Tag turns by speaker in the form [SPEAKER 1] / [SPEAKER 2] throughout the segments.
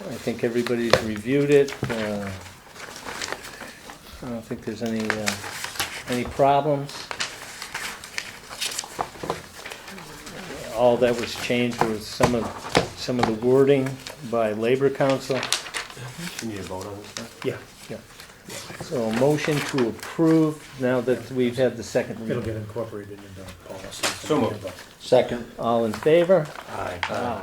[SPEAKER 1] I think everybody's reviewed it. uh, I don't think there's any, uh, any problems. All that was changed was some of, some of the wording by Labor Council.
[SPEAKER 2] You need a vote on this stuff?
[SPEAKER 1] Yeah. Yeah. So a motion to approve now that we've had the second
[SPEAKER 3] It'll get
[SPEAKER 1] reading.
[SPEAKER 3] incorporated into the policy.
[SPEAKER 2] So moved.
[SPEAKER 4] Second.
[SPEAKER 1] All in favor?
[SPEAKER 2] Aye.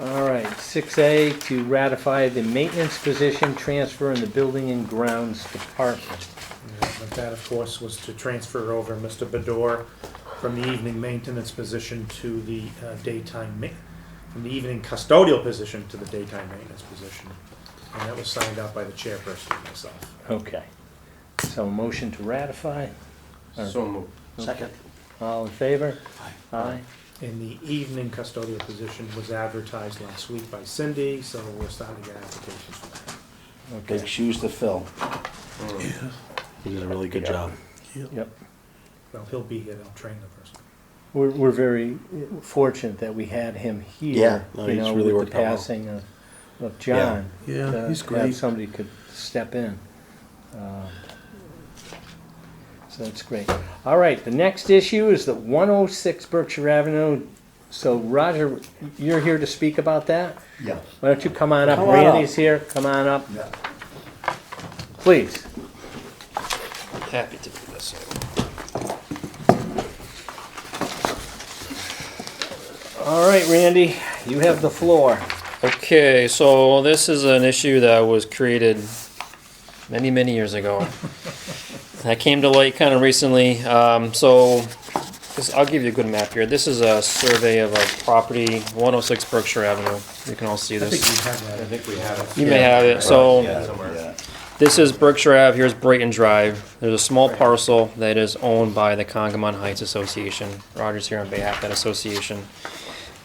[SPEAKER 1] All right, six A, to ratify the maintenance position transfer in the Building and Grounds Department.
[SPEAKER 3] Yeah, But that, of course, was to transfer over Mr. Bador from the evening maintenance position to the uh, daytime ma, from the evening custodial position to the daytime maintenance position. And that was signed out by the chairperson and myself.
[SPEAKER 1] Okay. So a motion to ratify,
[SPEAKER 2] So moved.
[SPEAKER 4] Second.
[SPEAKER 1] all in favor? Aye.
[SPEAKER 3] And the evening custodial position was advertised last week by Cindy, so we're starting to get applications for that.
[SPEAKER 4] Big
[SPEAKER 1] Okay,
[SPEAKER 4] shoes to fill. He did a really good job.
[SPEAKER 1] yep.
[SPEAKER 3] Well, he'll be here, they'll train the person.
[SPEAKER 1] We're, we're very fortunate that we had him here.
[SPEAKER 4] Yeah, no,
[SPEAKER 1] you
[SPEAKER 4] he's
[SPEAKER 1] know,
[SPEAKER 4] really
[SPEAKER 1] with
[SPEAKER 4] worked
[SPEAKER 1] the
[SPEAKER 4] out well.
[SPEAKER 1] passing of, of John.
[SPEAKER 5] Yeah,
[SPEAKER 1] to
[SPEAKER 5] he's
[SPEAKER 1] have
[SPEAKER 5] great.
[SPEAKER 1] somebody could step in. Uh, So that's great. All right, the next issue is the 106 Berkshire Avenue. So Roger, you're here to speak about that?
[SPEAKER 4] Yeah.
[SPEAKER 1] Why don't you come on up?
[SPEAKER 4] Come on up.
[SPEAKER 1] Randy's here, come on up,
[SPEAKER 4] Yeah.
[SPEAKER 1] please.
[SPEAKER 2] Happy to do this.
[SPEAKER 1] All right, Randy, you have the floor.
[SPEAKER 6] Okay, so this is an issue that was created many, many years ago. that came to light kind of recently. Um, so this, I'll give you a good map here. This is a survey of a property, 106 Berkshire Avenue. You can all see
[SPEAKER 3] I think
[SPEAKER 6] this.
[SPEAKER 3] you have that.
[SPEAKER 2] I think we have it.
[SPEAKER 6] You may have it. So
[SPEAKER 2] Somewhere.
[SPEAKER 4] Yeah.
[SPEAKER 6] this is Berkshire Ave. Here's Brayton Drive. There's a small parcel that is owned by the Congamon Heights Association. Roger's here on behalf of that association.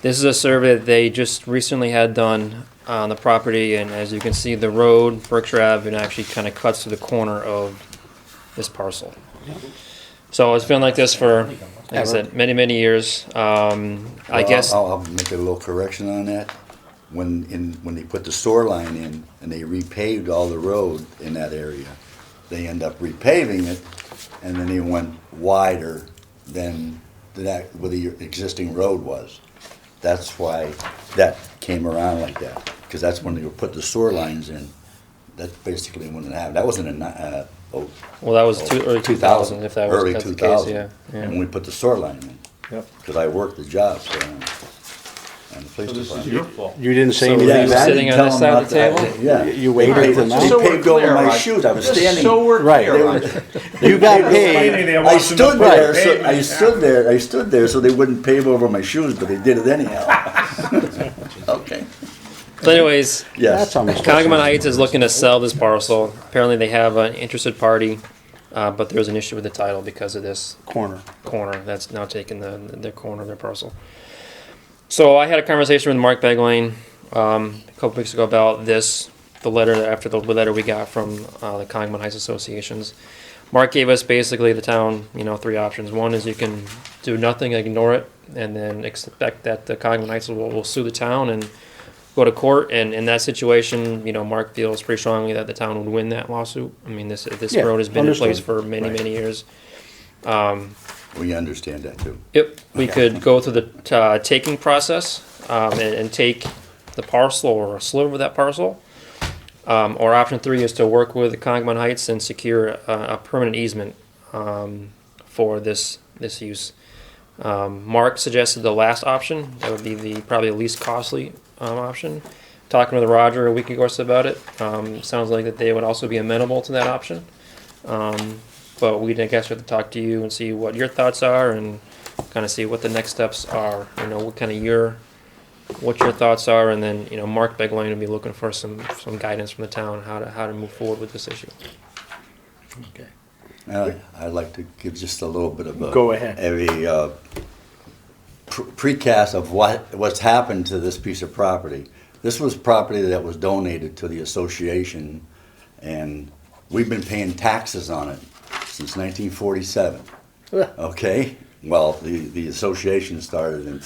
[SPEAKER 6] This is a survey that they just recently had done on the property, and as you can see, the road, Berkshire Avenue, actually kind of cuts to the corner of this parcel. So it's been like this for, like I said, many, many years. Um, I
[SPEAKER 7] Well,
[SPEAKER 6] guess,
[SPEAKER 7] I'll, I'll make a little correction on that. When, in, when they put the sewer line in and they repaved all the road in that area, they end up repaving it and then they went wider than that, where the existing road was. That's why that came around like that, because that's when they put the sewer lines in. That's basically when it happened. That wasn't in, uh, oh.
[SPEAKER 6] well, that was two, early 2000, if that was
[SPEAKER 7] Early
[SPEAKER 6] that's the
[SPEAKER 7] two
[SPEAKER 6] case,
[SPEAKER 7] thousand.
[SPEAKER 6] yeah. yeah.
[SPEAKER 7] And we put the sewer line in
[SPEAKER 1] Yep.
[SPEAKER 7] because I worked the job, so, and the police
[SPEAKER 2] So this is
[SPEAKER 7] department.
[SPEAKER 2] your fault.
[SPEAKER 4] You didn't say
[SPEAKER 6] So
[SPEAKER 4] anything.
[SPEAKER 6] were you
[SPEAKER 4] about it?
[SPEAKER 6] sitting on this side of the table?
[SPEAKER 7] Yeah.
[SPEAKER 4] You waited till
[SPEAKER 7] They
[SPEAKER 4] now?
[SPEAKER 2] So we're
[SPEAKER 7] paved over
[SPEAKER 2] clear,
[SPEAKER 7] my
[SPEAKER 2] Rod.
[SPEAKER 7] shoes, I was
[SPEAKER 2] Just
[SPEAKER 7] standing.
[SPEAKER 2] so we're
[SPEAKER 4] Right.
[SPEAKER 2] clear on it.
[SPEAKER 4] You got
[SPEAKER 3] Maybe
[SPEAKER 4] paid.
[SPEAKER 3] they
[SPEAKER 7] I
[SPEAKER 3] watched them
[SPEAKER 7] stood
[SPEAKER 3] up on the
[SPEAKER 7] there, so, I
[SPEAKER 3] pavement.
[SPEAKER 7] stood there, I stood there so they wouldn't pave over my shoes, but they did it anyhow. Okay,
[SPEAKER 6] So anyways,
[SPEAKER 7] yes.
[SPEAKER 4] That's almost.
[SPEAKER 6] Congamon Heights is looking to sell this parcel. Apparently, they have an interested party, uh, but there's an issue with the title because of this
[SPEAKER 4] Corner.
[SPEAKER 6] corner that's now taking the, the corner of their parcel. So I had a conversation with Mark Beglane um, a couple weeks ago about this, the letter after the letter we got from uh, the Congamon Heights Associations. Mark gave us basically the town, you know, three options. One is you can do nothing, ignore it, and then expect that the Congamon Heights will, will sue the town and go to court. And in that situation, you know, Mark feels pretty strongly that the town would win that lawsuit. I mean, this this
[SPEAKER 4] Yeah,
[SPEAKER 6] road has been
[SPEAKER 4] understood.
[SPEAKER 6] in place for many, many years. Um,
[SPEAKER 7] We understand that too.
[SPEAKER 6] Yep, we could go through the uh, taking process um, and, and take the parcel or a sliver of that parcel. Um, or option three is to work with the Congamon Heights and secure a, a permanent easement um, for this this use. Um, Mark suggested the last option. That would be the probably least costly um, option. Talking with Roger a week ago or so about it, um, sounds like that they would also be amenable to that option. Um, but we'd, I guess, have to talk to you and see what your thoughts are and kind of see what the next steps are. You know, what kind of your, what your thoughts are, and then you know, Mark Beglane will be looking for some some guidance from the town how to how to move forward with this issue.
[SPEAKER 7] Uh, I'd like to give just a little bit of a.
[SPEAKER 1] Go ahead.
[SPEAKER 7] A, uh, pre- precast of what, what's happened to this piece of property. This was property that was donated to the association, and we've been paying taxes on it since nineteen forty-seven. Okay, well, the, the association started in